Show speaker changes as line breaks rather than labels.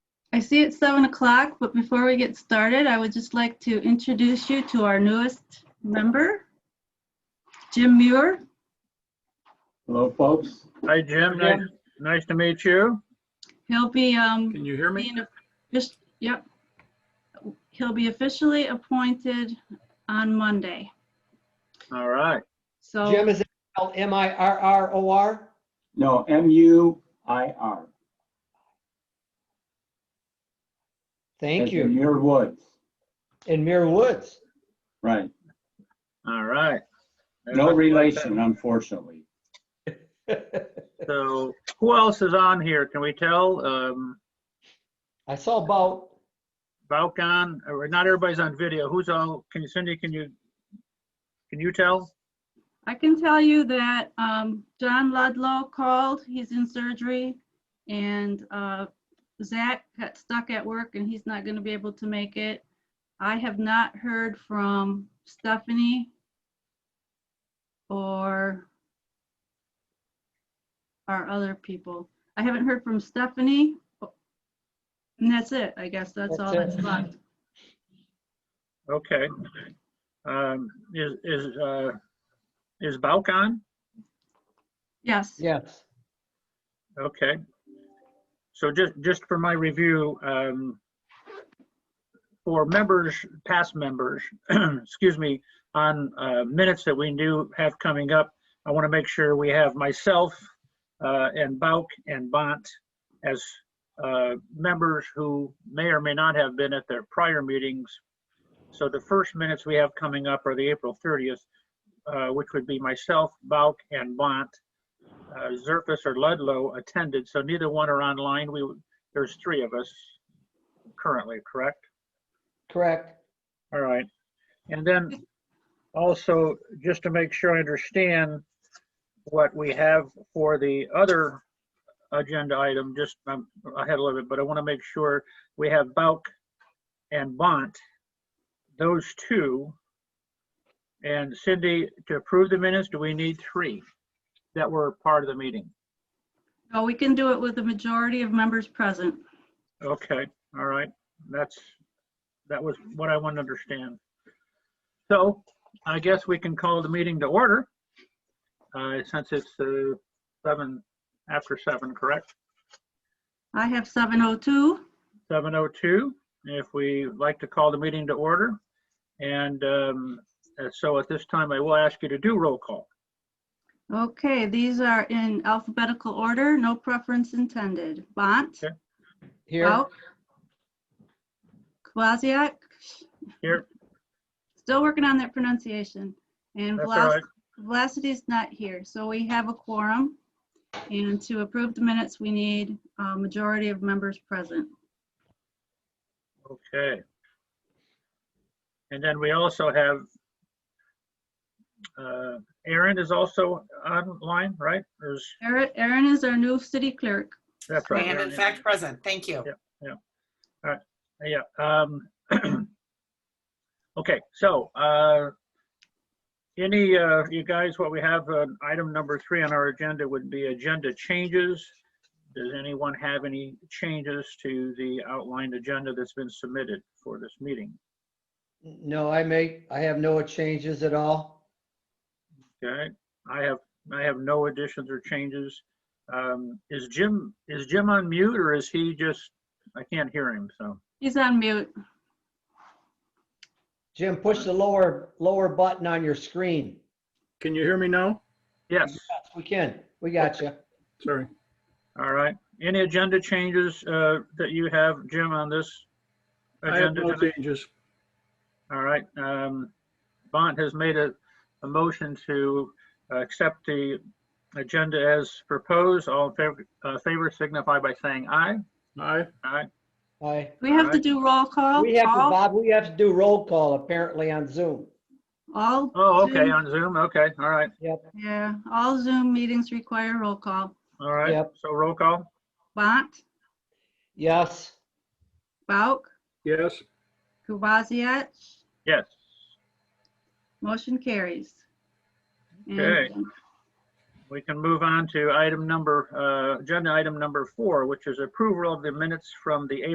I see it's seven o'clock, but before we get started, I would just like to introduce you to our newest member, Jim Muir.
Hello, folks.
Hi, Jim. Nice, nice to meet you.
He'll be, um,
Can you hear me?
being, offic- yep. He'll be officially appointed on Monday.
All right.
So
Jim is spelled M-I-R-R-O-R.
No, M-U-I-R.
Thank
As in
you.
Muir Woods,
In Muir Woods.
right.
All right.
No relation, unfortunately.
So who else is on here? Can we tell? Um,
I saw about,
Balkan, or not everybody's on video. Who's all, can you, Cindy, can you, can you tell?
I can tell you that, um, John Ludlow called, he's in surgery. And, uh, Zach got stuck at work and he's not gonna be able to make it. I have not heard from Stephanie or our other people. I haven't heard from Stephanie. And that's it, I guess. That's all
That's
that's
it.
left.
Okay. Um, is, is, uh, is Balkan?
Yes.
yes,
Okay. So just, just for my review, um, for members, past members, excuse me, on uh, minutes that we do have coming up, I want to make sure we have myself uh, and Bauk and Bont as uh, members who may or may not have been at their prior meetings. So the first minutes we have coming up are the April 30th, uh, which would be myself, Bauk, and Bont uh, Zerfus or Ludlow attended, so neither one are online. We, there's three of us currently, correct?
correct.
All right. And then also, just to make sure I understand what we have for the other agenda item, just, I'm ahead a little bit, but I want to make sure we have Bauk and Bont, those two. And Cindy, to approve the minutes, do we need three that were part of the meeting?
No, we can do it with the majority of members present.
Okay, all right, that's, that was what I wanted to understand. So I guess we can call the meeting to order, uh, since it's uh, seven, after seven, correct?
I have 702.
7:02, if we like to call the meeting to order. And um, and so at this time, I will ask you to do roll call.
Okay, these are in alphabetical order, no preference intended. Bont,
Okay.
Here,
Bauk, Kwasiak.
Here.
Still working on that pronunciation. And
That's all right.
Velocity is not here, so we have a quorum. And to approve the minutes, we need a majority of members present.
Okay. And then we also have, uh, Aaron is also online, right? There's,
Erin Erin is our new city clerk.
that's right.
And in
Aaron is-
fact, present, thank you.
Yeah, um, okay, so, uh, any, uh, you guys, what we have, uh, item number three on our agenda would be agenda changes. Does anyone have any changes to the outlined agenda that's been submitted for this meeting?
no, I make, I have no changes at all.
Okay, I have, I have no additions or changes. Um, is Jim, is Jim on mute or is he just, I can't hear him, so,
He's on mute.
Jim, push the lower, lower button on your screen.
Can you hear me now?
yes,
Yes, We can, we got you.
Sorry.
all right. Any agenda changes, uh, that you have, Jim, on this?
I have
agenda
no
tonight?
changes.
All right, um, Bont has made a, a motion to uh, accept the agenda as proposed. All in favor, uh, favor signify by saying aye.
Aye.
Aye,
Aye.
We have to
Alright.
do roll call.
We have to,
All-
Bob, we have to do roll call apparently on Zoom.
All.
oh, okay,
Zoom-
on Zoom, okay, all right,
Yeah, all Zoom meetings require roll call.
all right.
Yep.
So roll call?
Bont,
Yes,
Bauk,
Yes.
Kowaziac,
Yes.
motion carries. And,
Okay.
um,
We can move on to item number, uh, agenda item number four, which is approval of the minutes from the